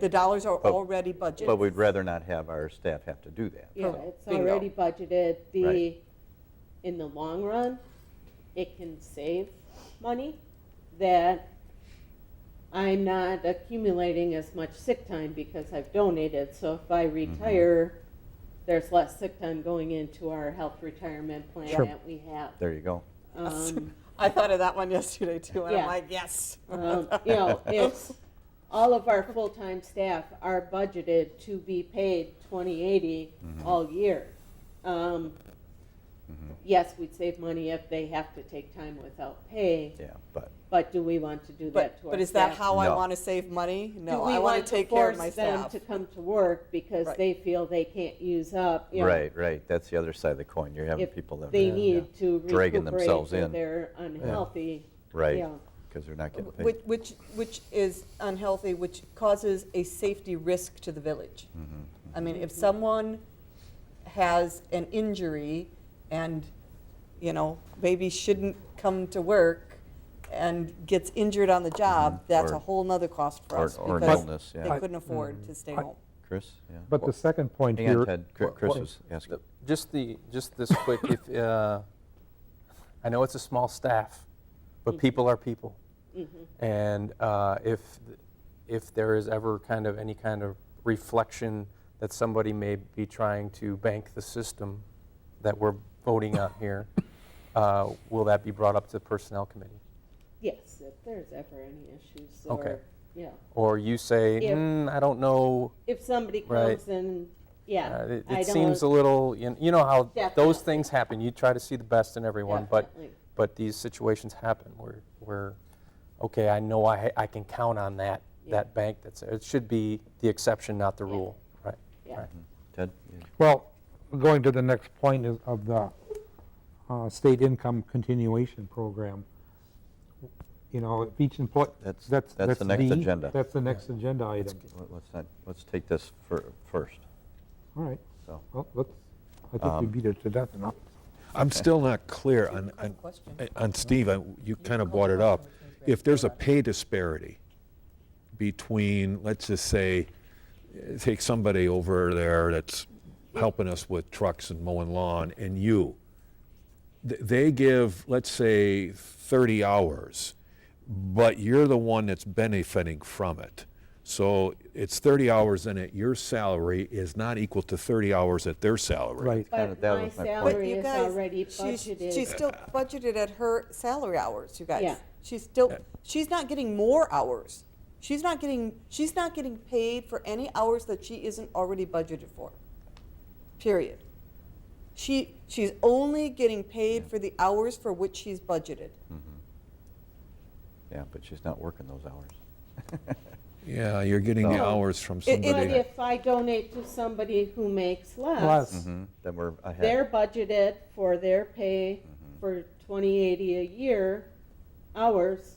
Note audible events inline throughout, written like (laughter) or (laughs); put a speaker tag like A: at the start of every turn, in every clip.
A: The dollars are already budgeted.
B: But we'd rather not have our staff have to do that.
C: Yeah,
A: Correct.
C: it's
A: Bingo.
C: already budgeted, the,
B: Right.
C: in the long run, it can save money that I'm not accumulating as much sick time because I've donated, so if I
B: Mm-hmm.
C: retire, there's less sick time going into our health retirement plan
B: Sure.
C: that we have.
B: There you go.
C: Um,
A: (laughs) I thought of that one yesterday too, and I'm
C: Yeah.
A: like, yes. (laughs)
C: Um,
B: (laughs)
C: You know, it's, all of our full-time staff are budgeted to be paid 2080
B: Mm-hmm.
C: all year. Um, Yes, we'd save money if they have to take time without pay,
B: Yeah, but
C: but do we want to do
A: But,
C: that to our staff?
A: but is that how I
B: No.
A: want to save money?
C: Do
A: No,
C: we
A: I want to take care of my staff.
C: force them to come to work because
A: Right.
C: they feel they can't use up, you know,
B: right, right. That's the other side of the coin. You're having
C: if
B: people that
C: they
B: yeah,
C: need to
B: Dragging
C: recuperate
B: themselves
C: that
B: in.
C: they're unhealthy.
B: right
C: yeah.
B: because they're not getting paid.
A: Which, which, which is unhealthy, which causes a safety risk to the village.
B: Mm-hmm,
A: I mean, if someone has an injury and, you know, maybe shouldn't come to work and gets injured on the job, that's a
B: Mm-hmm. Or-
A: whole nother cost for
B: or-
A: us.
B: or an
A: because
B: illness, yeah.
A: They
B: I-
A: couldn't afford to stay
D: I-
A: home.
B: Chris, yeah.
D: But the second point
B: Hang on,
D: here.
B: Ted. Chri- Chris was asking.
E: The- Just the, just this quick, if, uh, I know it's a small staff,
C: Mm.
E: but people are people.
C: Mm-hmm.
E: And uh, if, th- if there is ever kind of any kind of reflection that somebody may be trying to bank the system that we're voting on
C: (laughs)
E: here, uh, will that be brought up to the Personnel Committee?
C: Yes, if there's ever any issues
E: Okay.
C: or, yeah.
E: Or you say,
C: If-
E: hmm, I don't know,
C: if somebody
E: Right.
C: comes and, yeah.
E: Uh, It
C: I
E: it seems a
C: don't-
E: little, you kn- you know how those
C: Definitely.
E: things happen. You try to see the best in everyone, but,
C: Definitely.
E: but these situations happen where, where, okay, I know I, ha- I can count on that,
C: Yeah.
E: that bank that's, it should be the exception, not the
C: Yeah.
E: rule, right?
C: Yeah.
E: right.
B: Hmm. Ted? yeah.
D: Well, going to the next point is of the uh, state income continuation program. You know, if each employee.
B: That's- that's the next agenda.
D: That's the next agenda item.
B: Let- Let's not, let's take this fir- first.
D: All right.
B: So- Um,
D: Well, let's, I think we beat it to death enough.
F: I'm still not clear on, on- eh,
A: question.
F: on Steve, I- you kind of brought it up. If there's a pay disparity between, let's just say, eh, take somebody over there that's helping us with trucks and mowing lawn and you, th- they give, let's say, 30 hours, but you're the one that's benefiting from it. So it's 30 hours and it, your salary is not equal to 30 hours at their salary.
D: Right.
B: Kinda-
C: But
B: that
C: my
B: was my point.
A: But
C: salary
A: you
C: is
A: guys,
C: already
A: she's-
C: budgeted.
A: She's still budgeted at her salary hours, you guys.
C: Yeah.
A: She's still, she's not getting more hours. She's not getting, she's not getting paid for any hours that she isn't already budgeted for. Period. She, she's only getting paid for the hours for which she's budgeted.
E: Mm-hmm.
B: Yeah, but she's not working those hours.
F: Yeah, you're getting the
C: No.
F: hours from
A: it-
F: somebody.
C: But if I donate to somebody who makes
D: Less.
C: less,
B: Mhm, Then we're ahead.
C: they're budgeted for their pay
B: Mm-hmm.
C: for 2080 a year hours.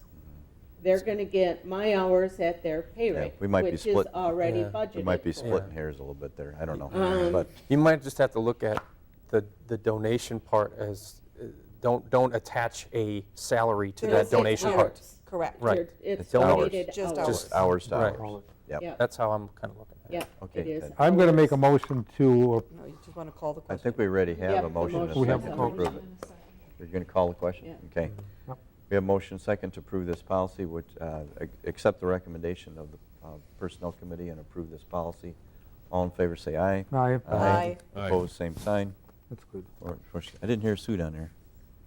C: They're going to get my hours at their pay
B: Mm-hmm. Yeah,
C: rate,
B: we might be
C: which is
B: split-
C: already
E: Yeah.
C: budgeted
B: We might be
C: for.
B: splitting hairs a little bit there. I don't know.
C: Um,
B: But
E: You might just have to look at the, the donation part as, uh, don't, don't attach a salary to
A: They're
E: that
A: just saying
E: donation part.
A: hours, Correct.
E: Right.
C: They're- It's
B: It's hours.
C: donated
A: Just
C: hours.
A: hours.
B: just hours to
E: Right.
B: hours.
C: Yeah.
E: That's how I'm kind of looking at it.
C: Yeah,
B: Okay,
C: it is.
B: Ted.
D: I'm going to make a motion to,
A: No, you just want to call the
B: I
A: question.
B: think we already
C: Yeah,
B: have a
C: the
B: motion and a
C: motion.
D: We have
B: second
D: a
B: to approve it. You're going to call the question?
C: Yeah.
B: Okay.
D: Yep.
B: We have motion second to approve this policy, which, uh, ac- accept the recommendation of the uh, Personnel Committee and approve this policy. All in favor, say aye.
D: Aye.
A: Aye.
F: Aye.
B: Opposed, same sign.
D: that's good.
B: Or- or sh- I didn't hear Sue down there.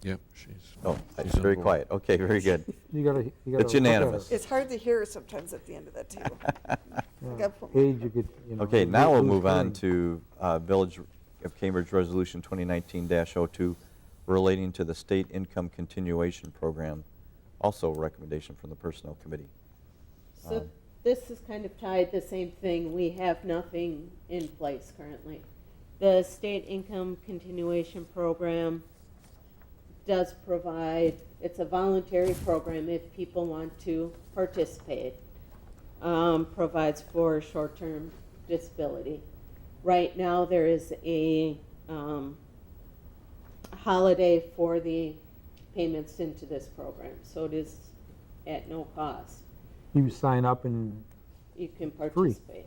F: Yep, she's.
B: Oh,
F: she's
B: it's
F: on
B: very
F: board.
B: quiet. Okay, very good.
D: You gotta, you gotta.
B: It's
D: look at
B: unanimous.
D: it.
A: It's hard to hear sometimes at the end of that
E: (laughs)
A: table. I gotta put my-
D: Age, you could, you know.
B: Okay,
D: you
B: now we'll
D: lose
B: move on
D: hearing.
B: to uh, Village of Cambridge Resolution 2019-02 relating to the State Income Continuation Program, also a recommendation from the Personnel Committee.
C: So this is kind of tied the same thing. We have nothing in place currently. The state income continuation program does provide, it's a voluntary program if people want to participate. Um, provides for short-term disability. Right now, there is a, um, holiday for the payments into this program, so it is at no cost.
D: You sign up and
C: you can participate.